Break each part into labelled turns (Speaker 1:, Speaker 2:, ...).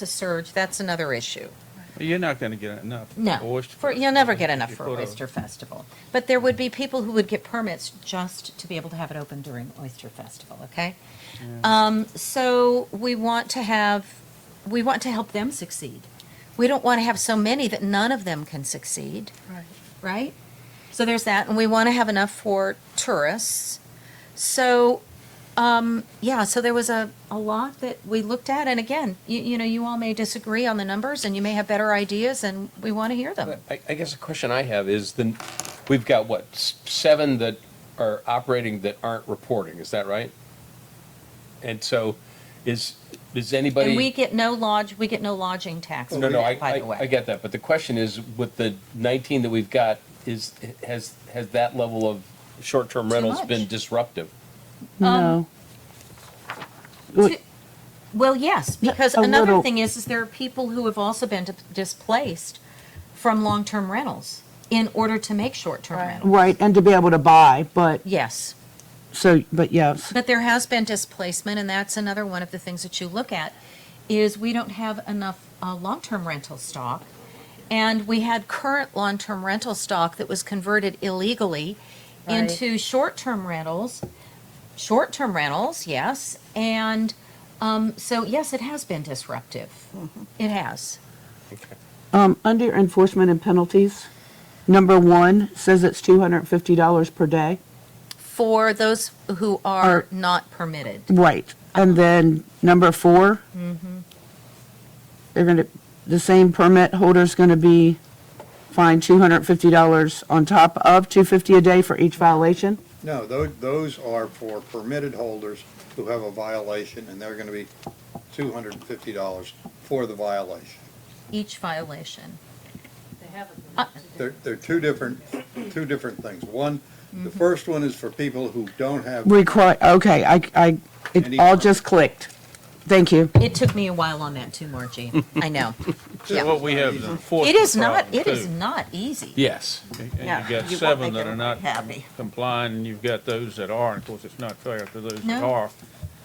Speaker 1: to surge, that's another issue.
Speaker 2: You're not going to get enough.
Speaker 1: No,
Speaker 2: oyster
Speaker 1: for,
Speaker 2: fest.
Speaker 1: you'll never get enough
Speaker 2: You
Speaker 1: for
Speaker 2: put a-
Speaker 1: Oyster Festival. But there would be people who would get permits just to be able to have it open during Oyster Festival, okay? Um, so we want to have, we want to help them succeed. We don't want to have so many that none of them can succeed,
Speaker 3: Right.
Speaker 1: right? So there's that, and we want to have enough for tourists. So, um, yeah, so there was a, a lot that we looked at, and again, you, you know, you all may disagree on the numbers, and you may have better ideas, and we want to hear them.
Speaker 4: I, I guess the question I have is then, we've got what, s- seven that are operating that aren't reporting, is that right? And so is, is anybody?
Speaker 1: And we get no lodge, we get no lodging tax,
Speaker 4: No, no, I,
Speaker 1: by the
Speaker 4: I, I
Speaker 1: way.
Speaker 4: get that, but the question is with the nineteen that we've got, is, has, has that level of short-term
Speaker 1: Too
Speaker 4: rentals
Speaker 1: much.
Speaker 4: been disruptive?
Speaker 5: No.
Speaker 1: Two- Well, yes, because
Speaker 5: A
Speaker 1: another
Speaker 5: little-
Speaker 1: thing is, is there are people who have also been di- displaced from long-term rentals in order to make short-term
Speaker 3: Right.
Speaker 1: rentals.
Speaker 5: Right, and to be able to buy, but,
Speaker 1: Yes.
Speaker 5: so, but yes.
Speaker 1: But there has been displacement, and that's another one of the things that you look at, is we don't have enough uh, long-term rental stock. And we had current long-term rental stock that was converted illegally
Speaker 3: Right.
Speaker 1: into short-term rentals, short-term rentals, yes. And um, so, yes, it has been disruptive. It has.
Speaker 5: Um, under enforcement and penalties, number one says it's two hundred and fifty dollars per day.
Speaker 1: For those who are not permitted.
Speaker 5: Right, and then number 4 they They're gonna, the same permit holder's gonna be fined two hundred and fifty dollars on top of two fifty a day for each violation?
Speaker 6: No, those, those are for permitted holders who have a violation, and they're gonna be two hundred and fifty dollars for the violation.
Speaker 1: Each violation. Uh,
Speaker 6: They're, they're two different, two different things. One, the first one is for people who don't have,
Speaker 5: Require, okay, I, I, it
Speaker 6: Any-
Speaker 5: all just clicked. Thank you.
Speaker 1: It took me a while on that too, Margie. I know. Yeah.
Speaker 2: So what we have is an
Speaker 1: It is not,
Speaker 2: enforcement
Speaker 1: it is
Speaker 2: problem,
Speaker 1: not easy.
Speaker 4: Yes.
Speaker 2: too.
Speaker 1: yeah,
Speaker 2: And you've got
Speaker 1: you won't
Speaker 2: seven
Speaker 1: make
Speaker 2: that are not
Speaker 1: everybody happy.
Speaker 2: complying, and you've got those that are. And of course, it's not fair to those that
Speaker 1: No.
Speaker 2: are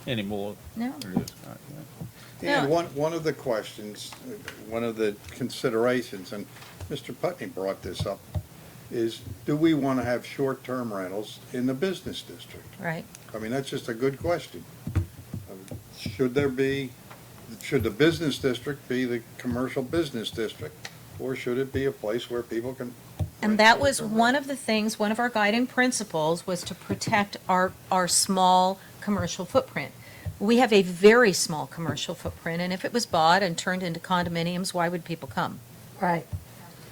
Speaker 2: anymore.
Speaker 1: No.
Speaker 2: It is not, yeah.
Speaker 1: Yeah.
Speaker 6: and one, one of the questions, uh, one of the considerations, and Mr. Putney brought this up, is do we wanna have short-term rentals in the business district?
Speaker 1: Right.
Speaker 6: I mean, that's just a good question. Um, Should there be, should the business district be the commercial business district? Or should it be a place where people can?
Speaker 1: And that was one of the things, one of our guiding principles was to protect our, our small commercial footprint. We have a very small commercial footprint, and if it was bought and turned into condominiums, why would people come?
Speaker 3: Right.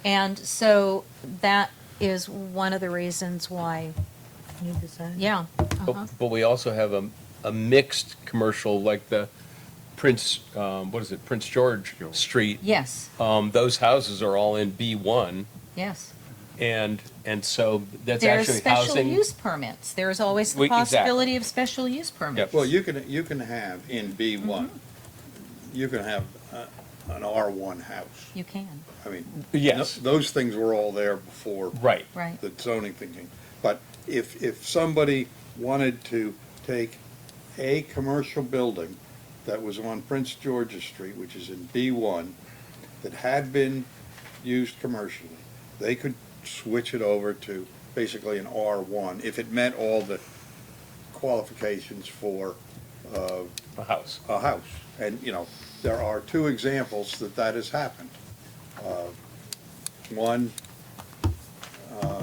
Speaker 1: And so that is one of the reasons why,
Speaker 3: Need to sign.
Speaker 1: yeah. uh-huh.
Speaker 4: But, but we also have a, a mixed commercial like the Prince, um, what is it, Prince George Street.
Speaker 1: Yes,
Speaker 4: Um, those houses are all in B one
Speaker 1: yes.
Speaker 4: and, and so that's
Speaker 1: There's
Speaker 4: actually
Speaker 1: special
Speaker 4: housing.
Speaker 1: use permits. There's always the
Speaker 4: We- exactly.
Speaker 1: possibility of special use permits.
Speaker 6: Well, you can, you can have in B one,
Speaker 1: Mm-hmm.
Speaker 6: you can have uh, an R one house.
Speaker 1: You can,
Speaker 6: I mean.
Speaker 4: Yes.
Speaker 6: th- Those things were all there before.
Speaker 4: Right.
Speaker 1: right.
Speaker 6: The zoning thinking. But if, if somebody wanted to take a commercial building that was on Prince George's Street, which is in B1, that had been used commercially, they could switch it over to basically an R1 if it met all the qualifications for uh,
Speaker 4: A house.
Speaker 6: a house. And, you know, there are two examples that that has happened. Uh, One uh,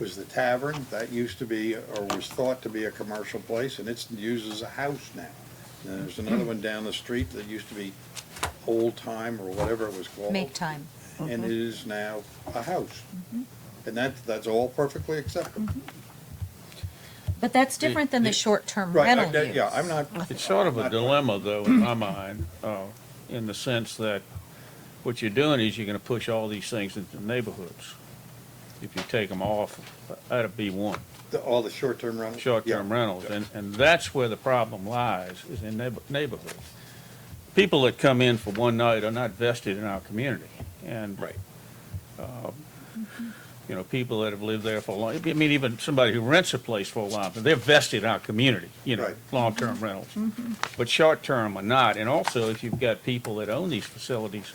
Speaker 6: was the tavern, that used to be, or was thought to be a commercial place, and it's used as a house now. And there's another one down the street that used to be Old Time or whatever it was called.
Speaker 1: Make time. Mm-hmm.
Speaker 6: And it is now a house. And that, that's all perfectly acceptable.
Speaker 1: But that's different than the
Speaker 4: it-
Speaker 1: short-term
Speaker 6: Right,
Speaker 1: rental
Speaker 6: I-
Speaker 1: use.
Speaker 6: yeah, I'm not,
Speaker 2: It's sort of a dilemma, though, in my mind, uh, in the sense that what you're doing is you're gonna push all these things into neighborhoods if you take them off out of B one,
Speaker 6: the- all the short-term rentals.
Speaker 2: short-term
Speaker 6: Yeah.
Speaker 2: rentals, and, and that's where the problem lies, is in neighbor- neighborhoods. People that come in for one night are not vested in our community, and
Speaker 4: Right.
Speaker 2: um, you know, people that have lived there for a long, I mean, even somebody who rents a place for a while, but they're vested in our community, you know,
Speaker 6: Right.
Speaker 2: long-term rentals. But short-term are not, and also if you've got people that own these facilities,